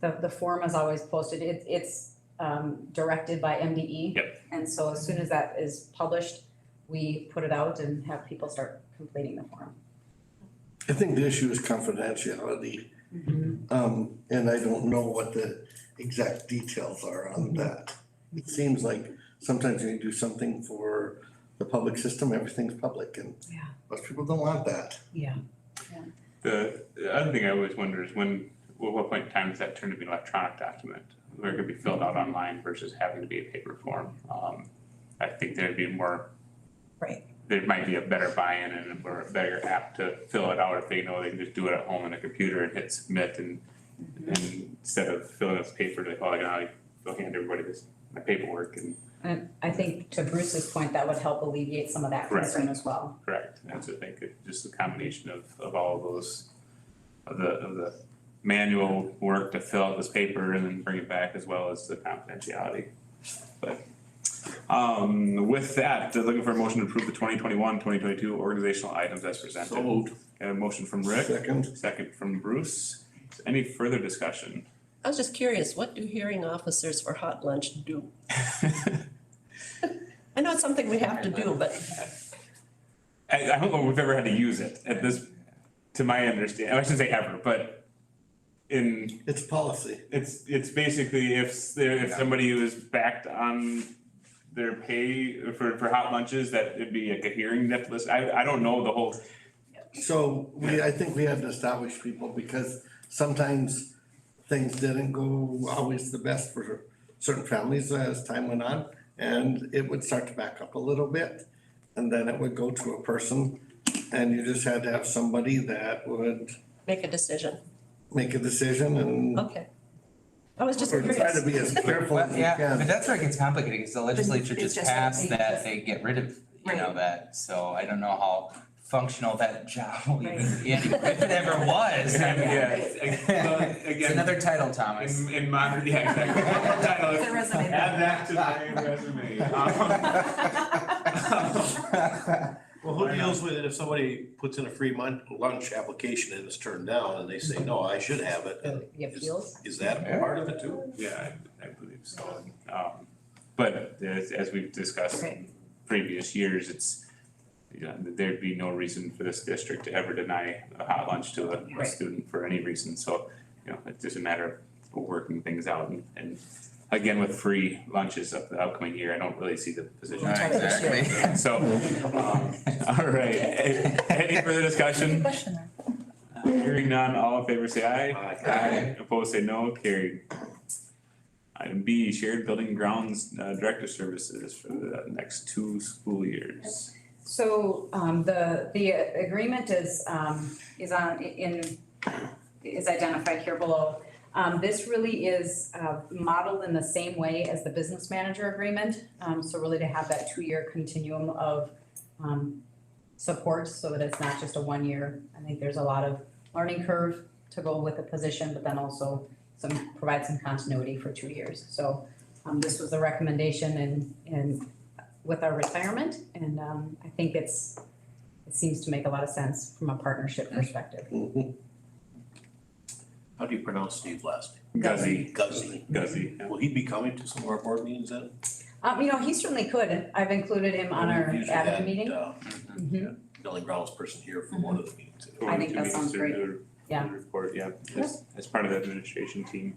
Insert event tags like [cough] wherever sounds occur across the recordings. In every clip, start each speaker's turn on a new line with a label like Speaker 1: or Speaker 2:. Speaker 1: the, the form is always posted, it, it's, um, directed by MDE.
Speaker 2: Yep.
Speaker 1: And so as soon as that is published, we put it out and have people start completing the form.
Speaker 3: I think the issue is confidentiality, um, and I don't know what the exact details are on that. It seems like sometimes when you do something for the public system, everything's public and
Speaker 1: Yeah.
Speaker 3: most people don't want that.
Speaker 1: Yeah.
Speaker 2: The, the other thing I always wonder is when, at what point in time does that turn to be an electronic document? Where it could be filled out online versus having to be a paper form. Um, I think there'd be more.
Speaker 1: Right.
Speaker 2: There might be a better buy-in and or a better app to fill it out if they know they can just do it at home on a computer and hit submit and and instead of filling out paper, they probably gonna go hand everybody this my paperwork and
Speaker 1: I think to Bruce's point, that would help alleviate some of that
Speaker 2: Correct.
Speaker 1: concern as well.
Speaker 2: [laughs] correct. And so I think it- just the combination of of all of those, of the of the manual work to fill out this paper and then bring it back as well as the confidentiality. But um with that, they're looking for a motion to approve the 2021-2022 organizational items as presented.
Speaker 3: So moved.
Speaker 2: And a motion from Rick,
Speaker 3: Second,
Speaker 2: second from Bruce. Any further discussion? [laughs]
Speaker 4: I was just curious, what do hearing officers for hot lunch do? I know it's something we have to do, but
Speaker 2: I, I don't know if we've ever had to use it at this, to my understanding, I shouldn't say ever, but in,
Speaker 3: it's policy.
Speaker 2: it's, it's basically if s- there, if somebody was backed on their pay for, for hot lunches, that it'd be like a hearing that list, I, I don't know the whole,
Speaker 3: So we, I think we had to establish people because sometimes things didn't go always the best for certain families as time went on. And it would start to back up a little bit and then it would go to a person. And you just had to have somebody that would
Speaker 4: make a decision,
Speaker 3: make a decision and
Speaker 4: okay. I Oh, was just
Speaker 3: or try to
Speaker 4: curious,
Speaker 3: be as careful as
Speaker 5: Well,
Speaker 3: you
Speaker 5: yeah, but
Speaker 3: can.
Speaker 5: that's where it gets complicated, because the legislature
Speaker 4: it's
Speaker 5: just
Speaker 4: just that
Speaker 5: passed
Speaker 4: they
Speaker 5: that
Speaker 4: just-
Speaker 5: they get rid of, you know,
Speaker 4: Right.
Speaker 5: that, so I don't know how functional that [laughs] job will even,
Speaker 1: Right.
Speaker 5: be, if
Speaker 1: [laughs]
Speaker 5: it ever was. I
Speaker 2: [laughs]
Speaker 5: mean,
Speaker 2: yeah, again.
Speaker 5: It's [laughs] another title, Thomas.
Speaker 2: In, in modern, yeah, exactly. One more [laughs] title.
Speaker 5: [laughs]
Speaker 1: It's a resume.
Speaker 2: Add that to my resume. [laughs] Um,
Speaker 6: Well, who deals with it if somebody puts in a free mon- lunch application and it's turned down and they say, no, I should have it?
Speaker 1: The the
Speaker 6: Is-
Speaker 1: appeals.
Speaker 6: Is that a part of it too?
Speaker 2: Yeah, I, I believe so. Um, but as, as we've discussed in
Speaker 1: Right.
Speaker 2: previous years, it's, you know, there'd be no reason for this district to ever deny a hot lunch to a, a
Speaker 1: Right.
Speaker 2: student for any reason. So, you know, it's just a matter of working things out and, and again, with free lunches up the upcoming year, I don't really see the position.
Speaker 4: Right.
Speaker 2: [laughs]
Speaker 5: Exactly.
Speaker 2: So, um, all right, [laughs] A- any further discussion? Hearing none, all in favor say aye.
Speaker 6: Aye.
Speaker 2: Opposed say no, carried. Item B, shared building grounds uh, director services for the next two school years.
Speaker 1: So um the the agreement is um is on in is identified here below. Um this really is uh modeled in the same way as the business manager agreement. Um so really to have that two-year continuum of um support so that it's not just a one-year. I think there's a lot of learning curve to go with the position, but then also some provide some continuity for two years. So um this was the recommendation and and with our retirement, and um I think it's, it seems to make a lot of sense from a partnership perspective.
Speaker 3: Mhm.
Speaker 6: How do you pronounce Steve's last
Speaker 2: Guzzy,
Speaker 6: name? Guzzi.
Speaker 2: Guzzy, yeah.
Speaker 6: Will he be coming to some of our board meetings then?
Speaker 1: Um, you know, he certainly could, I've included him on our
Speaker 6: Usually
Speaker 1: admin
Speaker 6: that,
Speaker 1: meeting.
Speaker 6: uh,
Speaker 5: [laughs]
Speaker 1: Mhm.
Speaker 6: Building grounds person here for one of the meetings.
Speaker 1: I think that sounds great.
Speaker 2: Two meetings to do a-
Speaker 1: Yeah.
Speaker 2: do a Report, yeah, as, as part of the administration team.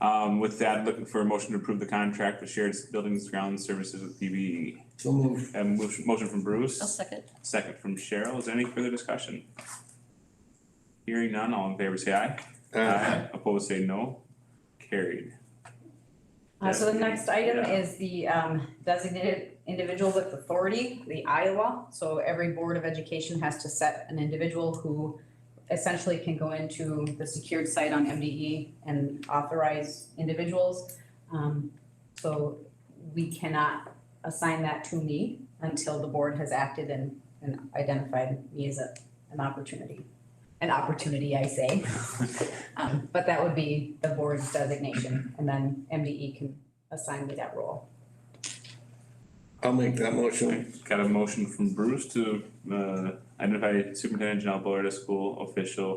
Speaker 2: Um, with that, looking for a motion to approve the contract for shared buildings grounds services with PBE.
Speaker 3: So move.
Speaker 2: And motion, motion from Bruce.
Speaker 4: [laughs] I'll second,
Speaker 2: Second from Cheryl, is there any further discussion? Hearing none, all in favor say aye.
Speaker 3: Uh,
Speaker 2: Uh, Opposed say no, carried.
Speaker 1: Uh, so the
Speaker 2: Yeah.
Speaker 1: next item
Speaker 2: Yeah.
Speaker 1: is the um designated individual with authority, the Iowa. So every Board of Education has to set an individual who essentially can go into the secured site on MDE and authorize individuals. Um, so we cannot assign that to me until the board has acted and and identified me as a an opportunity. An opportunity, I say. Um, but that would be the board's designation, and then MDE can assign me that role.
Speaker 3: I'll make that motion.
Speaker 2: Got a motion from Bruce to uh identify Superintendent Janelle Bullard as school official